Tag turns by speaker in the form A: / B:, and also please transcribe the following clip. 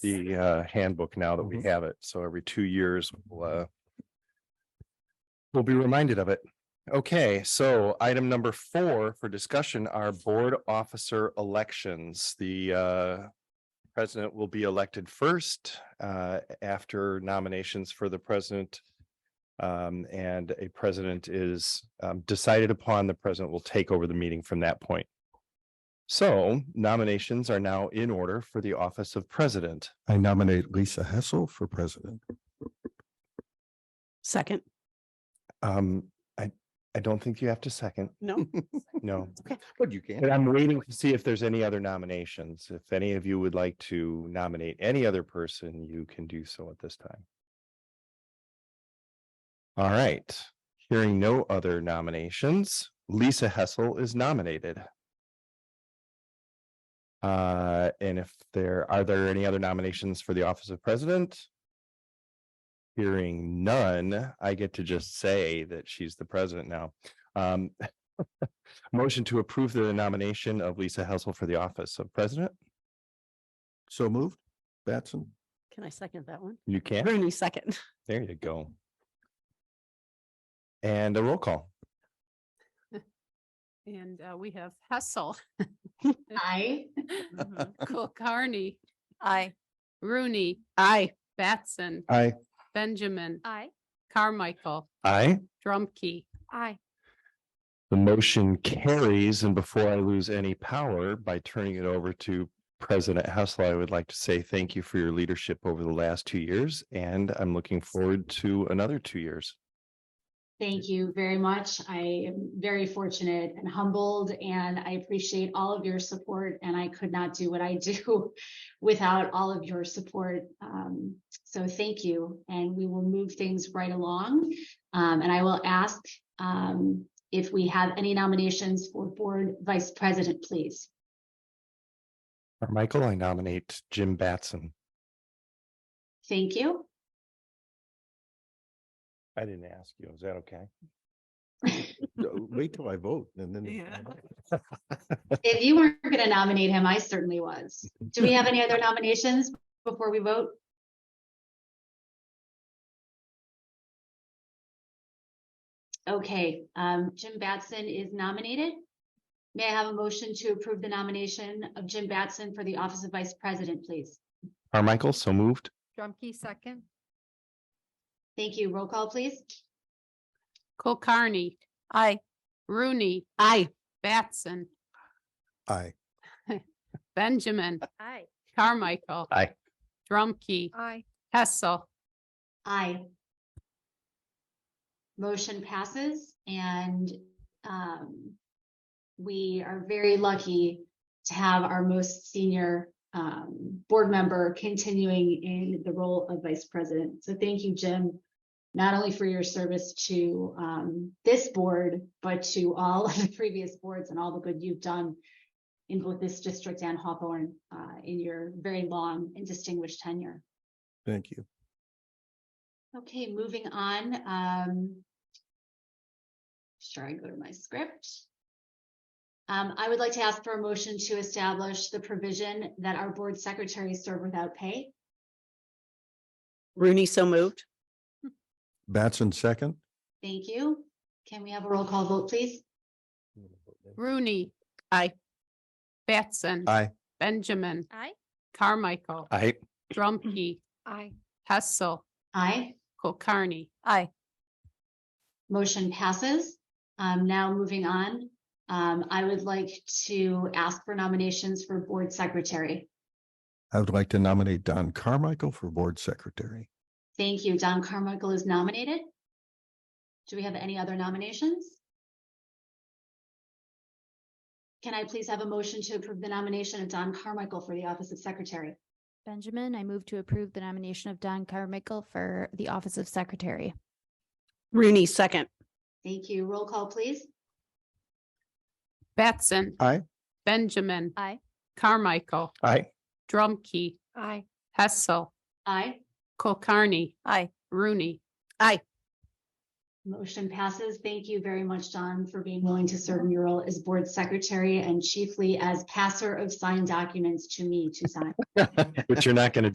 A: the uh handbook now that we
B: Mhm.
A: have it. So every two years, we'll uh. We'll be reminded of it. Okay, so item number four for discussion are board officer elections. The uh. President will be elected first uh after nominations for the president. Um, and a president is um decided upon, the president will take over the meeting from that point. So nominations are now in order for the office of president.
B: I nominate Lisa Hessel for president.
C: Second,
A: Um, I, I don't think you have to second,
C: no,
A: no.
B: But you
A: But I'm waiting to see if there's any other nominations. If any of you would like to nominate any other person, you can do so at this time. All right, hearing no other nominations, Lisa Hessel is nominated. Uh, and if there, are there any other nominations for the office of president? Hearing none, I get to just say that she's the president now. Um, Motion to approve the nomination of Lisa Hessel for the office of president.
B: So moved. Batson.
C: can I second that one?
A: You can.
C: Rooney, second.
A: There you go. And a roll call.
D: And uh, we have Hessel,
E: Aye.
D: Cook, Carney,
E: Aye.
D: Rooney. Aye. Batson,
A: Aye.
D: Benjamin,
E: Aye.
D: Carmichael,
A: Aye.
D: Drumkey.
E: Aye.
A: The motion carries, and before I lose any power by turning it over to President Hessel, I would like to say thank you for your leadership over the last two years, and I'm looking forward to another two years.
E: Thank you very much. I am very fortunate and humbled, and I appreciate all of your support. And I could not do what I do without all of your support. Um, so thank you, and we will move things right along. Um, and I will ask um, if we have any nominations for board vice president, please.
A: Michael, I nominate Jim Batson.
E: Thank you.
A: I didn't ask you. Is that okay?
B: Wait till I vote and
C: Yeah.
B: then.
E: If you weren't going to nominate him, I certainly was. Do we have any other nominations before we vote? Okay, um, Jim Batson is nominated. May I have a motion to approve the nomination of Jim Batson for the office of vice president, please?
A: Carmichael, so moved.
F: Drumkey second.
E: Thank you. Roll call, please.
D: Cook, Carney,
F: Aye.
D: Rooney. Aye. Batson,
B: Aye.
D: Benjamin,
F: Aye.
D: Carmichael.
A: Aye.
D: Drumkey,
F: Aye.
D: Hessel,
E: Aye. Motion passes and um, we are very lucky to have our most senior um, board member continuing in the role of vice president. So thank you, Jim, not only for your service to um, this board, but to all of the previous boards and all the good you've done in both this district and Hawthorne uh, in your very long and distinguished tenure.
B: Thank you.
E: Okay, moving on, um. Sure, I go to my script. Um, I would like to ask for a motion to establish the provision that our board secretaries serve without pay.
C: Rooney, so moved.
B: Batson second.
E: Thank you. Can we have a roll call vote, please?
D: Rooney. Aye. Batson.
B: Aye.
D: Benjamin,
F: Aye.
D: Carmichael,
A: Aye.
D: Drumkey,
F: Mm-hmm. Aye.
D: Hessel,
E: Aye,
D: Cook, Carney.
F: Aye.
E: motion passes. Um, now moving on, um, I would like to ask for nominations for board secretary.
B: I would like to nominate Don Carmichael for board secretary.
E: Thank you. Don Carmichael is nominated. Do we have any other nominations? Can I please have a motion to approve the nomination of Don Carmichael for the office of secretary?
G: Benjamin, I move to approve the nomination of Don Carmichael for the office of secretary.
C: Rooney, second.
E: Thank you. Roll call, please.
D: Batson.
B: Aye.
D: Benjamin.
G: Aye.
D: Carmichael,
A: Aye.
D: Drumkey,
F: Aye.
D: Hessel,
E: Aye.
D: Kulkarni,
F: Aye.
D: Rooney,
E: Motion passes. Thank you very much, Don, for being willing to serve in your role as board secretary and chiefly as passer of signed documents to me to sign.
A: But you're not going to